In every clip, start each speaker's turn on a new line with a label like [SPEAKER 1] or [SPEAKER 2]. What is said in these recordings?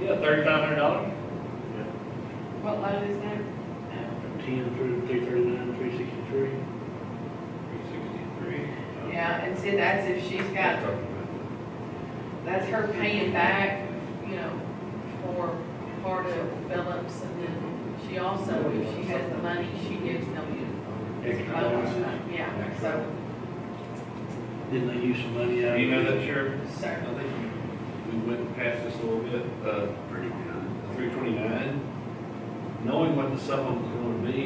[SPEAKER 1] Yeah, thirty-five hundred dollars?
[SPEAKER 2] What load is that?
[SPEAKER 3] Ten through three thirty-nine, three sixty-three.
[SPEAKER 1] Sixty-three.
[SPEAKER 2] Yeah, and see, that's if she's got, that's her paying back, you know, for part of Phillips, and then she also, if she has the money, she gives them
[SPEAKER 3] Extra
[SPEAKER 2] loans,
[SPEAKER 3] dollars.
[SPEAKER 2] yeah, so,
[SPEAKER 3] Didn't they use some money out? of
[SPEAKER 1] You know
[SPEAKER 3] it?
[SPEAKER 1] that, Sheriff? I
[SPEAKER 2] sir.
[SPEAKER 1] think we went past this a little bit, uh,
[SPEAKER 4] Pretty good.
[SPEAKER 1] three twenty-nine, knowing what the supplement was gonna be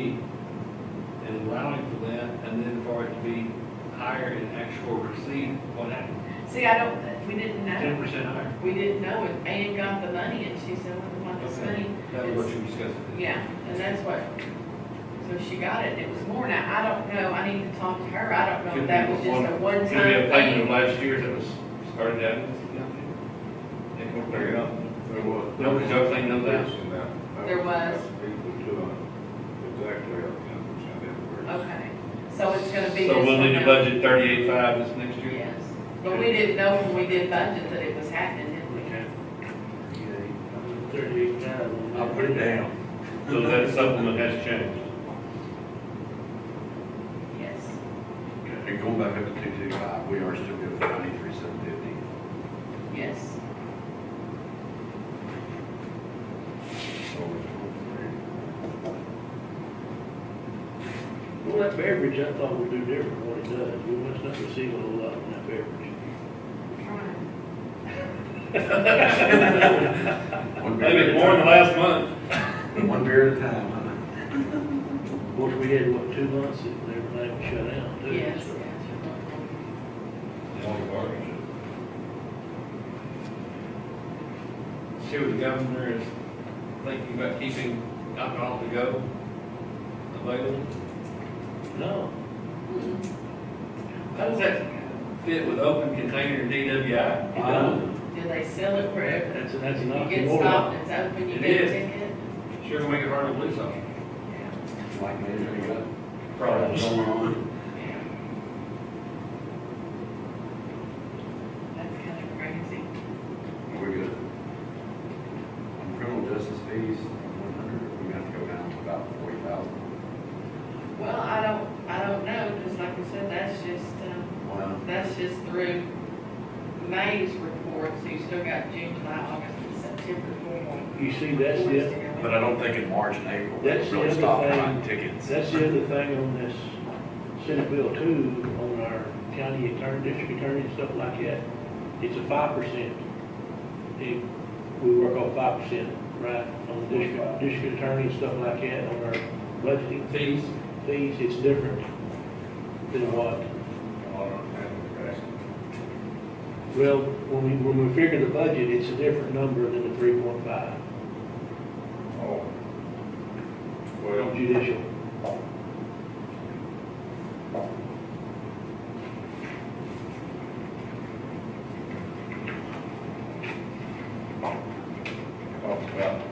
[SPEAKER 1] and allowing for that, and then for it to be higher in actual receipt, what happened?
[SPEAKER 2] See, I don't, we didn't
[SPEAKER 1] Ten
[SPEAKER 2] know,
[SPEAKER 1] percent higher?
[SPEAKER 2] we didn't know, and Ann got the money, and she said, well, we want this money.
[SPEAKER 1] That was what you discussed.
[SPEAKER 2] Yeah, and that's what, so she got it, it was more, now, I don't know, I need to talk to her, I don't know if that was just a one-time
[SPEAKER 1] Could
[SPEAKER 2] thing.
[SPEAKER 1] be a payment of last year that was started out. They can figure it out.
[SPEAKER 4] There was.
[SPEAKER 1] No, because y'all cleaned those out.
[SPEAKER 4] Yes, that- that
[SPEAKER 2] There was.
[SPEAKER 4] Equal to, uh, exactly, uh, ten percent everywhere.
[SPEAKER 2] Okay, so it's gonna be.
[SPEAKER 1] So
[SPEAKER 2] this
[SPEAKER 1] we'll
[SPEAKER 2] one
[SPEAKER 1] need to
[SPEAKER 2] now?
[SPEAKER 1] budget thirty-eight five this next year?
[SPEAKER 2] Yes, but we didn't know when we did budget that it was happening, did we?
[SPEAKER 3] Thirty-eight thousand.
[SPEAKER 4] I'll put it down.
[SPEAKER 1] So that supplement has changed.
[SPEAKER 2] Yes.
[SPEAKER 4] And going back up to two two five, we are still good for ninety-three, seven fifty.
[SPEAKER 2] Yes,
[SPEAKER 3] Well, that beverage, I thought would do different what it does. We must not receive a whole lot from that beverage.
[SPEAKER 2] trying.
[SPEAKER 1] Maybe more than last month.
[SPEAKER 4] One beer at a time,
[SPEAKER 3] Of course, we had, what, two months that everything was shut down, too.
[SPEAKER 2] yes,
[SPEAKER 3] so.
[SPEAKER 2] yes.
[SPEAKER 1] See what the governor is thinking about keeping alcohol to go available.
[SPEAKER 3] No,
[SPEAKER 1] How does that fit with open container DWI?
[SPEAKER 3] it don't.
[SPEAKER 2] Do they sell it wherever?
[SPEAKER 3] That's, that's an
[SPEAKER 2] You get
[SPEAKER 3] oxymoron.
[SPEAKER 2] stopped, it's open, you
[SPEAKER 1] It
[SPEAKER 2] get a
[SPEAKER 1] is.
[SPEAKER 2] ticket?
[SPEAKER 1] Sure gonna make it hard to police officer.
[SPEAKER 2] Yeah,
[SPEAKER 4] like measuring up.
[SPEAKER 1] Probably.
[SPEAKER 4] Going on.
[SPEAKER 2] yeah. That's kinda crazy.
[SPEAKER 4] We're good. On criminal justice fees, one hundred, we have to go down to about forty thousand.
[SPEAKER 2] Well, I don't, I don't know, because like I said, that's just, um,
[SPEAKER 4] Wow.
[SPEAKER 2] That's just through May's report, so you still got June, July, August, and September going.
[SPEAKER 3] You see, that's the,
[SPEAKER 4] But I don't think in March and April, we
[SPEAKER 3] That's the
[SPEAKER 4] really
[SPEAKER 3] other
[SPEAKER 4] stop
[SPEAKER 3] thing.
[SPEAKER 4] buying tickets.
[SPEAKER 3] That's the other thing on this Senate Bill too, on our county attorney, district attorney and stuff like that. It's a five percent. We work on five percent, right, on the district, district attorney and stuff like that, on our budgeting
[SPEAKER 1] Fees?
[SPEAKER 3] fees, it's different than what, well, when we, when we figure the budget, it's a different number than the three point five
[SPEAKER 4] Oh. Well,
[SPEAKER 3] on judicial.
[SPEAKER 4] talked about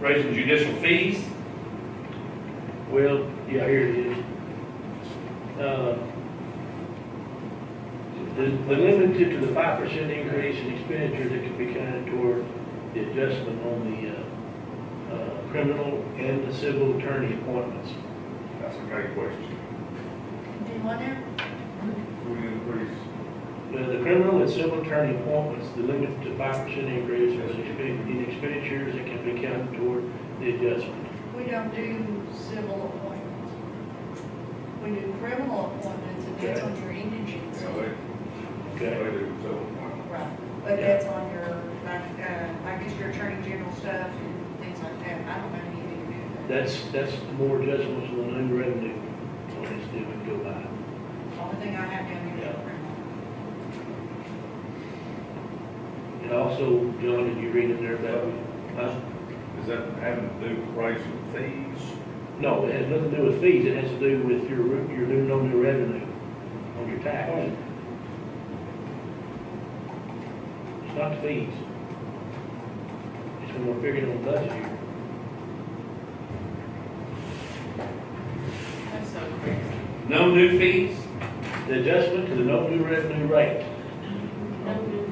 [SPEAKER 1] Raising judicial fees?
[SPEAKER 3] Well, yeah, here it is. Uh, The the limit to- to the five percent increase in expenditure that could be counted toward the adjustment on the uh, uh, criminal and the civil attorney appointments.
[SPEAKER 4] That's a great question.
[SPEAKER 2] Did one there?
[SPEAKER 4] We increase.
[SPEAKER 3] The the criminal and civil attorney appointments, the limit to five percent increase in expen- in expenditures that can be counted toward the adjustment.
[SPEAKER 5] We don't do civil appointments. We do criminal appointments, and that's on your indigent.
[SPEAKER 4] Yeah, they,
[SPEAKER 3] Okay?
[SPEAKER 4] they do so much.
[SPEAKER 5] Right, but that's on your, like, uh, I guess your attorney general stuff and things like that. I don't know anything to do with
[SPEAKER 3] That's, that's more adjustments on new revenue on this deal we go by.
[SPEAKER 5] that. Only thing I have down here is
[SPEAKER 3] Yeah.
[SPEAKER 5] criminal.
[SPEAKER 3] And also, John, did you read in there about, huh?
[SPEAKER 4] Is that having to do with raising fees?
[SPEAKER 3] No, it has nothing to do with fees, it has to do with your, re- your new, no new revenue on your tax. It's not the fees. It's when we're figuring on budget here.
[SPEAKER 2] That's so crazy.
[SPEAKER 1] No new fees?
[SPEAKER 3] The adjustment to the no new revenue rate